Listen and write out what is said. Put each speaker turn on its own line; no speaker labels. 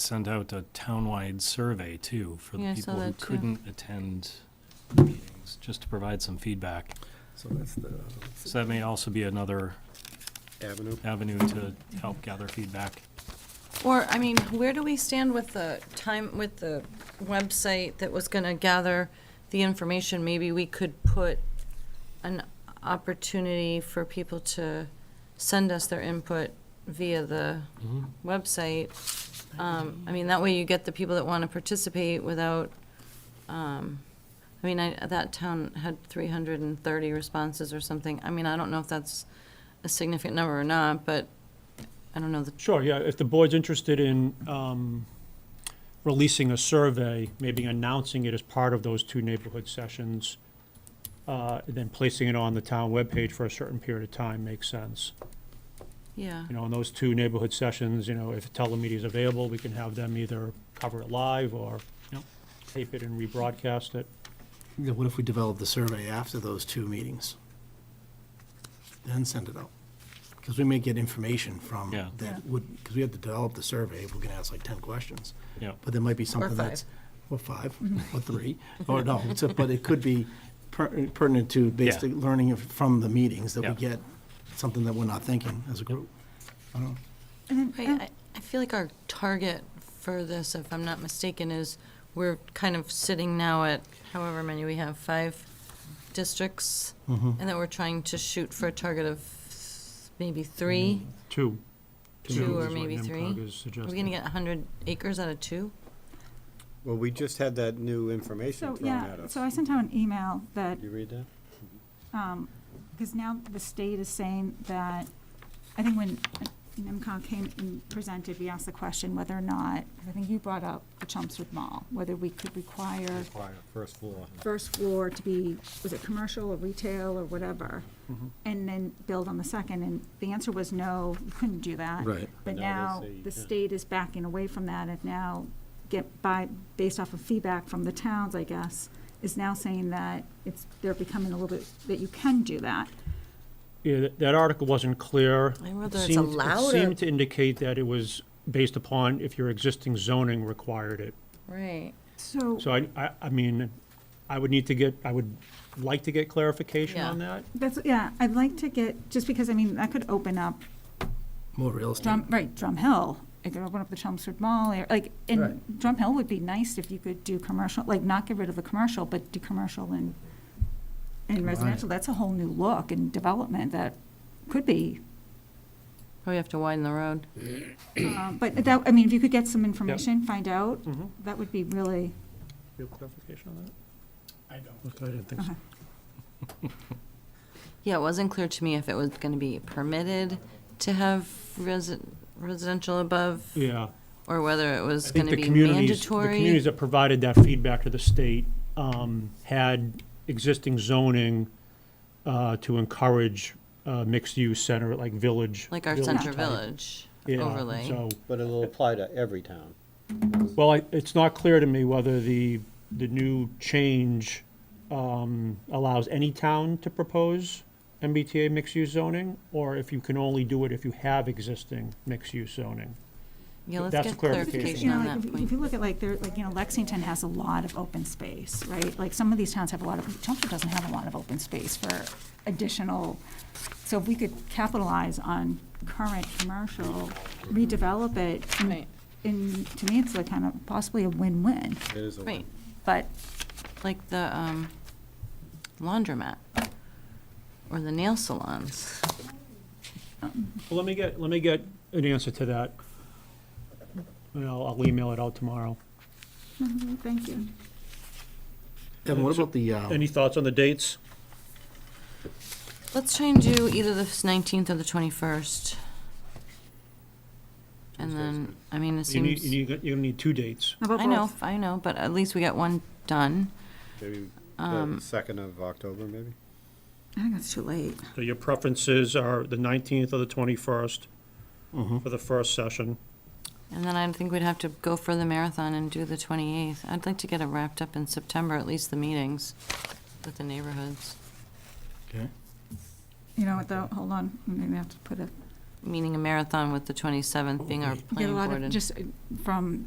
sent out a townwide survey too for
Yeah, I
the
saw
people who
that, too.
couldn't attend meetings, just to provide some feedback.
So that's the
So that may also be another
avenue.
avenue to help gather feedback.
Or, I mean, where do we stand with the time, with the website that was gonna gather the information? Maybe we could put an opportunity for people to send us their input via the website. Um, I mean, that way you get the people that wanna participate without, um, I mean, I, that town had three hundred and thirty responses or something. I mean, I don't know if that's a significant number or not, but I don't know the
Sure, yeah, if the board's interested in um, releasing a survey, maybe announcing it as part of those two neighborhood sessions, uh, and then placing it on the town webpage for a certain period of time makes sense.
Yeah,
You know, in those two neighborhood sessions, you know, if telemedia is available, we can have them either cover it live or
Yep.
tape it and rebroadcast it.
Yeah, What if we develop the survey after those two meetings? Then send it out. Because we may get information from
Yeah.
Yeah.
that would, because we have to develop the survey. We're going to ask like 10 questions.
Yeah.
But there might be something
five.
that's, or five, or three, or no, it's a- but it could be per- pertinent to basically learning if- from the meetings that we
Yeah.
get, something that we're not thinking as a group. I don't know.
Right, I, I feel like our target for this, if I'm not mistaken, is we're kind of sitting now at however many we have, five districts,
Mm-hmm.
and that we're trying to shoot for a target of maybe
Mm-hmm.
three.
Two.
Two or
is what
maybe three?
NIMCOG is
Are we
suggesting.
gonna get hundred acres out of two?
Well, we just had that new information
So,
thrown
yeah,
at us.
so I sent out an email that,
Did you read that?
because now the state is saying that, I think when NIMCOG came and presented, we asked the question whether or not, 'cause I think you brought up the Chelmsford Mall, whether we could require
Require first floor.
first floor to be, was it commercial or retail or whatever?
Mm-hmm.
And then build on the second, and the answer was no, you couldn't do that.
Right.
But
But
now
now,
they say you
the
can.
state is backing away from that, and now get by, based off of feedback from the towns, I guess, is now saying that it's, they're becoming a little bit, that you can do that.
Yeah, that- that article wasn't
I
clear.
don't know
It
whether it's
seemed-
allowed or-
It seemed to indicate that it was based upon if your existing zoning required it.
Right.
So,
So I, I, I mean, I would need to get, I would like to get clarification
Yeah.
on that.
that's, yeah, I'd like to get, just because, I mean, that could open up
More real estate.
Drum, right, Drum Hill, it could open up the Chelmsford Mall, area, like, and
Right.
Drum Hill would be nice if you could do commercial, like, not get rid of the commercial, but do commercial and, and
Right.
residential, that's a whole new look and development that could be,
Probably have to widen the road.
um, but that, I mean, if you could get some information, find out,
Mm-hmm.
that would be really,
Real clarification on that?
I don't. I didn't think so.
okay.
Yeah, it wasn't clear to me if it was gonna be permitted to have resi- residential above,
Yeah.
or whether it was
I think
gonna
the
be
communities, the communities
mandatory.
that provided that feedback to the state um, had existing zoning uh, to encourage uh, mixed-use center, like village.
Like our
village
center
type.
village
Yeah,
overlay.
So,
But it'll apply to every town.
well, I- it's not clear to me whether the, the new change um, allows any town to propose MBTA mixed-use zoning, or if you can only do it if you have existing mixed-use zoning.
Yeah, let's
That's
get
a clarification.
clarification
You know,
on
like,
that
if- If you
point.
look at like, there, like, you know, Lexington has a lot of open space, right? Like, some of these towns have a lot of, Chelmsford doesn't have a lot of open space for additional, so if we could capitalize on current commercial, redevelop it, and-
Right.
and to me, it's like kind of possibly a win-win,
It is a
Right.
win.
but
like the um, laundromat or the nail salons.
Well, let me get, let me get an answer to that. And I'll, I'll email it out tomorrow.
Mm-hmm, thank you.
Evan, what about the, um,
Any thoughts on the dates?
Let's try and do either the 19th or the 21st. And then, I mean, it
You need,
seems,
you need, you're gonna need two dates.
How about
I know,
both?
I know, but at least we got one done.
Maybe the second of October, maybe?
I think it's too late.
So your preferences are the nineteenth or the twenty-first for the first session.
And then I think we'd have to go for the marathon and do the 28th. I'd like to get it wrapped up in September, at least the meetings with the neighborhoods.
okay.
You know what, though, hold on, maybe I have to put a
meaning a marathon with the 27th being our
Get a
planning
lot
board.
of,
and-
just uh, from